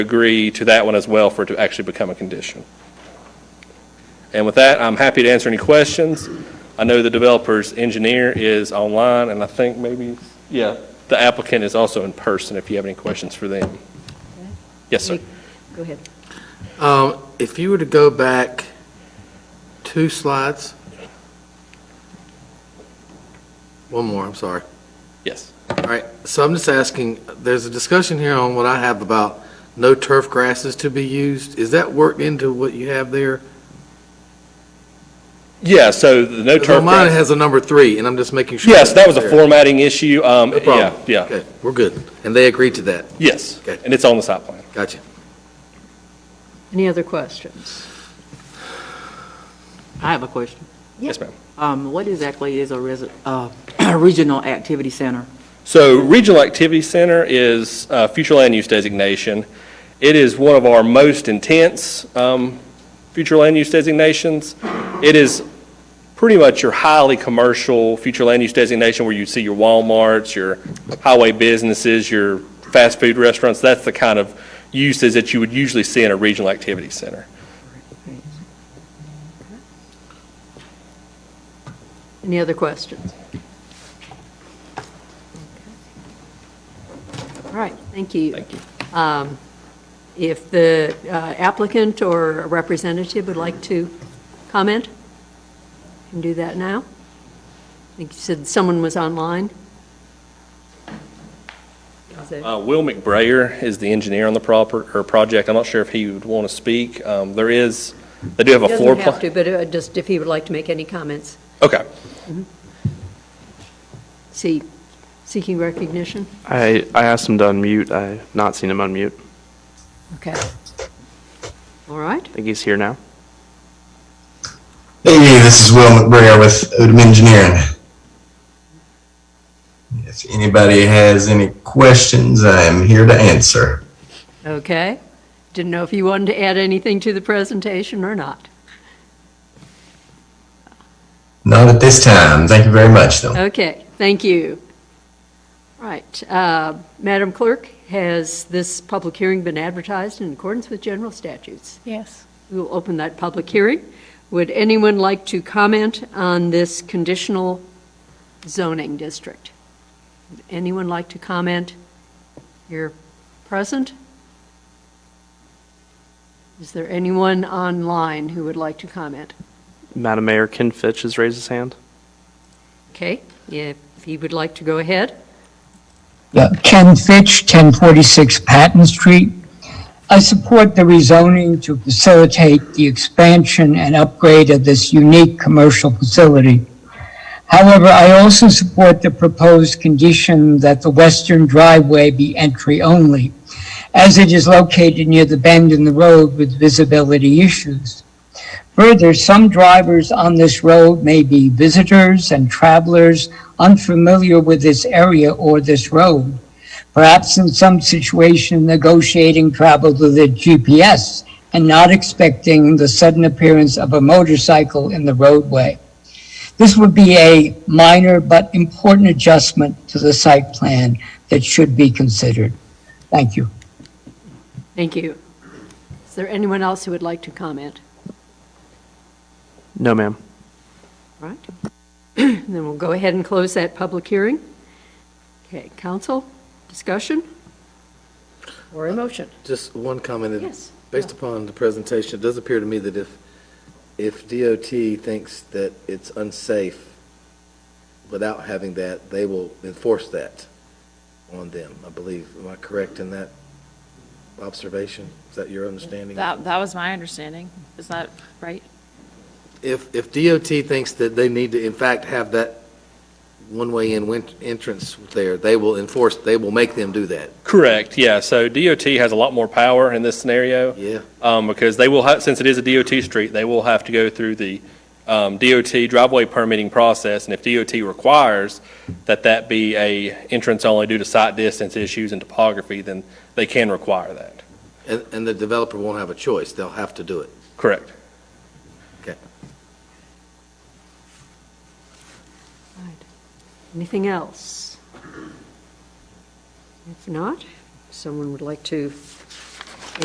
agree to that one as well for it to actually become a condition. And with that, I'm happy to answer any questions. I know the developer's engineer is online, and I think maybe, yeah, the applicant is also in person if you have any questions for them. Yes, sir. Go ahead. Um, If you were to go back two slides, one more, I'm sorry. Yes. All right, so I'm just asking, there's a discussion here on what I have about no turf grasses to be used. Is that worked into what you have there? Yeah, so the no 'Cause turf on Mine it grass. has a number three, and I'm just making sure. Yes, that was a it's there. formatting issue. Um, No problem. yeah, yeah, Okay, we're good. And they agreed to that. yes. Okay. And it's on the site plan. Gotcha. Any other questions? I have a question. Yes, ma'am. Um, What exactly is a resi- uh, regional activity center? So Regional Activity Center is uh, future land use designation. It is one of our most intense um, future land use designations. It is pretty much your highly commercial future land use designation where you see your Walmarts, your highway businesses, your fast food restaurants. That's the kind of uses that you would usually see in a regional activity center. Any other questions? All right, thank you. Thank you. Um, If the uh, applicant or a representative would like to comment, you can do that now. I think you said someone was online. Is it- Uh, Will McBrayer is the engineer on the proper, or project. I'm not sure if he would want to speak. Um, There is, they do have He a floor doesn't plan. have to, but uh, just if he would like to make any comments, Okay. see, seeking recognition? I, I asked him to unmute. I've not seen him unmute. Okay. All right. I think he's here now. Hey, this is Will McBrayer with Odom Engineering. If anybody has any questions, I am here to answer. Okay. Didn't know if you wanted to add anything to the presentation or not. Not at this time. Thank you very much, though. Okay, thank you. Right. uh, Madam Clerk, has this public hearing been advertised in accordance with general statutes? Yes. We will open that public hearing. Would anyone like to comment on this conditional zoning district? Would Anyone like to comment? You're present? Is there anyone online who would like to comment? Madam Mayor, Ken Fitch has raised his hand. Okay, if he would like to go ahead. Yeah, Uh, Ken Fitch, 1046 Patton Street. I support the rezoning to facilitate the expansion and upgrade of this unique commercial facility. However, I also support the proposed condition that the western driveway be entry-only, as it is located near the bend in the road with visibility issues. Further, some drivers on this road may be visitors and travelers unfamiliar with this area or this road. Perhaps in some situation negotiating travel with a GPS and not expecting the sudden appearance of a motorcycle in the roadway. This would be a minor but important adjustment to the site plan that should be considered. Thank you. Thank you. Is there anyone else who would like to comment? No, ma'am. All Right. Then we'll go ahead and close that public hearing. Okay, council, discussion? Or a motion? Just one comment. that- Yes. Based upon the presentation, it does appear to me that if, if DOT thinks that it's unsafe without having that, they will enforce that on them, I believe. Am I correct in that observation? Is that your understanding? That, that was my understanding. Is that right? If, if DOT thinks that they need to in fact have that one-way in win- entrance there, they will enforce, they will make them do that. Correct, yeah. So DOT has a lot more power in this scenario Yeah, um, because they will, ha- since it is a DOT street, they will have to go through the um, DOT driveway permitting process. And if DOT requires that that be a entrance only due to site distance issues and topography, then they can require that. and, and the developer won't have a choice. They'll have to do it. Correct. Anything else? If not, someone would like to